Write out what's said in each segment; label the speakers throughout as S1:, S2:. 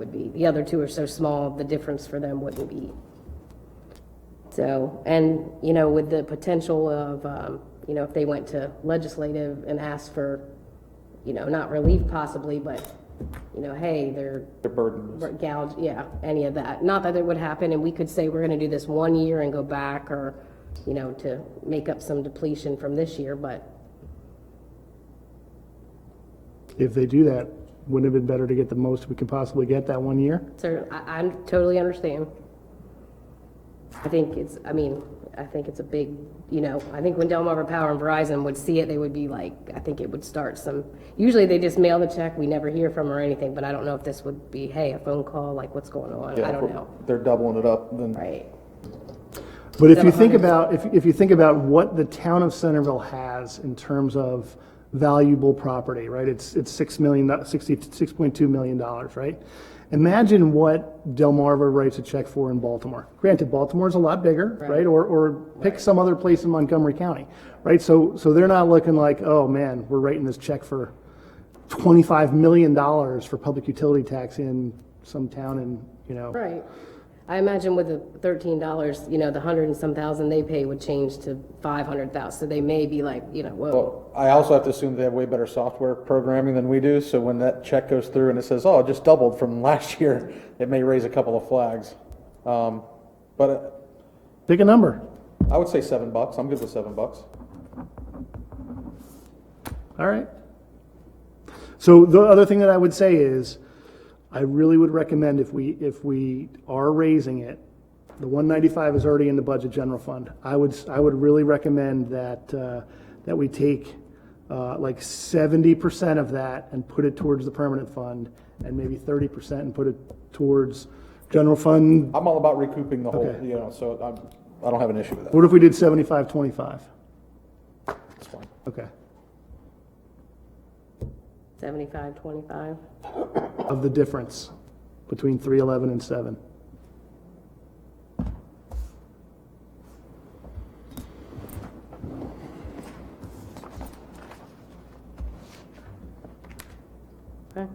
S1: would be, the other two are so small, the difference for them wouldn't be. So, and, you know, with the potential of, um, you know, if they went to legislative and asked for, you know, not relief possibly, but, you know, hey, they're
S2: They're burdened.
S1: Right, gouge, yeah, any of that. Not that it would happen, and we could say we're gonna do this one year and go back, or, you know, to make up some depletion from this year, but,
S3: If they do that, wouldn't it have been better to get the most we could possibly get that one year?
S1: sir, I, I totally understand. I think it's, I mean, I think it's a big, you know, I think when Delmarva Power and Verizon would see it, they would be like, I think it would start some, usually they just mail the check, we never hear from or anything, but I don't know if this would be, hey, a phone call, like, what's going on?
S2: Yeah,
S1: I don't
S2: we're-
S1: know.
S2: They're doubling it up, then.
S1: Right,
S3: But if you think about, if, if you think about what the town of Centerville has in terms of valuable property, right? It's, it's six million, do- sixty, six point two million dollars, right? Imagine what Delmarva writes a check for in Baltimore. Granted, Baltimore's a lot bigger, right? Or, or pick some other place in Montgomery County, right? So, so they're not looking like, oh man, we're writing this check for twenty-five million dollars for public utility tax in some town in, you know,
S1: Right. I imagine with the thirteen dollars, you know, the hundred and some thousand they pay would change to five hundred thousand, so they may be like, you know, whoa.
S2: Well, I also have to assume they have way better software programming than we do, so when that check goes through and it says, oh, it just doubled from last year, it may raise a couple of flags. Um, But uh,
S3: pick a number.
S2: I would say seven bucks, I'm good with seven bucks.
S3: All right. So the other thing that I would say is, I really would recommend if we, if we are raising it, the one ninety-five is already in the budget general fund. I would, s- I would really recommend that, uh, that we take, uh, like seventy percent of that and put it towards the permanent fund, and maybe thirty percent and put it towards general fund.
S2: I'm all about recouping the whole,
S3: Okay.
S2: you know, so I'm, I don't have an issue with that,
S3: What if we did seventy-five, twenty-five?
S2: it's fine.
S3: Okay.
S1: Seventy-five, twenty-five.
S3: Of the difference between three eleven and seven.
S1: Okay.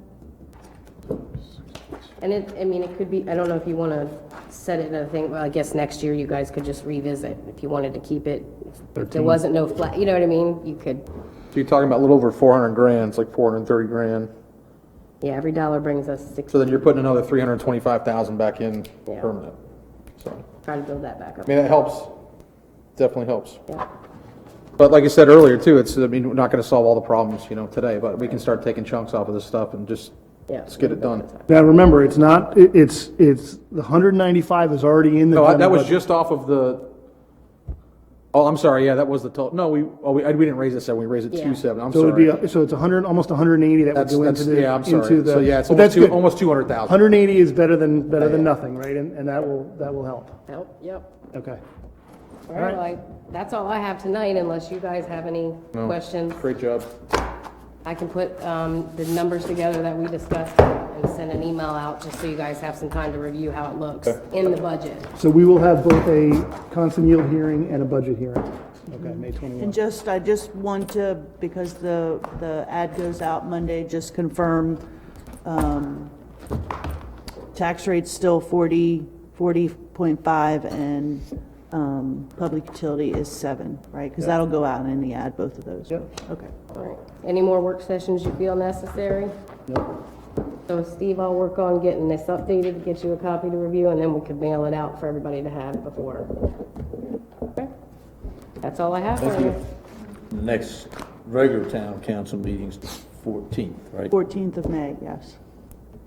S1: And it, I mean, it could be, I don't know if you want to set it in a thing, well, I guess next year you guys could just revisit if you wanted to keep it. If there
S3: Thirteen.
S1: wasn't no flat, you know what I mean? You could,
S2: So you're talking about a little over four hundred grand, it's like four hundred and thirty grand,
S1: yeah, every dollar brings us six,
S2: so then you're putting another three hundred and twenty-five thousand back in
S1: Yeah.
S2: permanent. So,
S1: try to build that back up.
S2: I mean, that helps, definitely helps.
S1: Yeah.
S2: But like I said earlier too, it's, I mean, we're not gonna solve all the problems, you know, today, but we can start taking chunks off of this stuff and just,
S1: Yeah.
S2: let's get it done.
S3: Now, remember, it's not, it- it's, it's, the hundred and ninety-five is already in the.
S2: No, Oh, I- that
S3: general
S2: was
S3: budget.
S2: just off of the, oh, I'm sorry, yeah, that was the total, no, we, oh, we, I- we didn't raise it seven, we raised it
S1: Yeah.
S2: two seven, I'm
S3: So it would be,
S2: sorry.
S3: a- so it's hundred, almost hundred and eighty that would
S2: That's,
S3: go into
S2: that's,
S3: the.
S2: yeah, I'm
S3: into
S2: sorry,
S3: the-
S2: so yeah, it's
S3: but that's
S2: almost two,
S3: good.
S2: almost two hundred thousand.
S3: Hundred and eighty is better than, better than nothing, right? And, and that will, that will help.
S1: Yep, yep.
S3: Okay.
S1: All right, well, I- that's all I have tonight unless you guys have any questions.
S2: Great job.
S1: I can put um, the numbers together that we discussed and send an email out just so you guys have some time to review how it looks in the budget.
S3: So we will have both a constant yield hearing and a budget hearing. Okay, May
S4: And
S3: twenty-one.
S4: just, I just want to, because the, the ad goes out Monday, just confirm, um, tax rate's still 40, 40.5 and, um, public utility is seven, right? Because that'll go out in the ad, both of those.
S3: Yep.
S4: Okay.
S1: All right. Any more work sessions you feel necessary? So Steve, I'll work on getting this updated, get you a copy to review, and then we could mail it out for everybody to have before. Okay. That's all I have for you.
S5: The next regular town council meeting's the fourteenth, right?
S4: 14th of May, yes.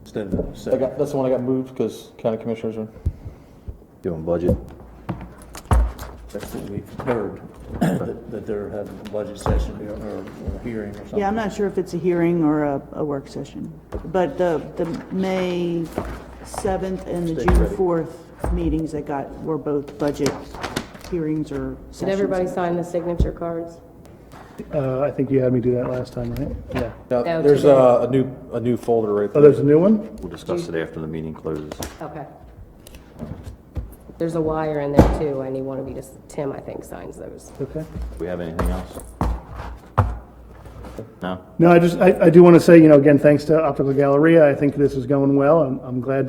S5: Instead of the
S2: I
S5: second.
S2: got, that's the one I got moved, cause county commissioners are,
S6: Doing budget.
S5: That's what we've heard, that that they're having a budget session or or hearing or something.
S4: Yeah, I'm not sure if it's a hearing or a, a work session, but the, the May 7th and the June 4th meetings that got, were both budget hearings or sessions.
S1: Did everybody sign the signature cards?
S3: Uh, I think you had me do that last time, right? Yeah.
S2: now,
S1: No,
S2: there's
S1: today.
S2: a, a new, a new folder right
S3: Oh,
S2: there.
S3: there's a new one?
S6: We'll discuss it after the meeting closes.
S1: Okay. There's a wire in there too, and you want to be just, Tim, I think, signs those.
S3: Okay.
S6: We have anything else? No?
S3: No, I just, I, I do want to say, you know, again, thanks to Optical Galleria, I think this is going well. I'm, I'm glad to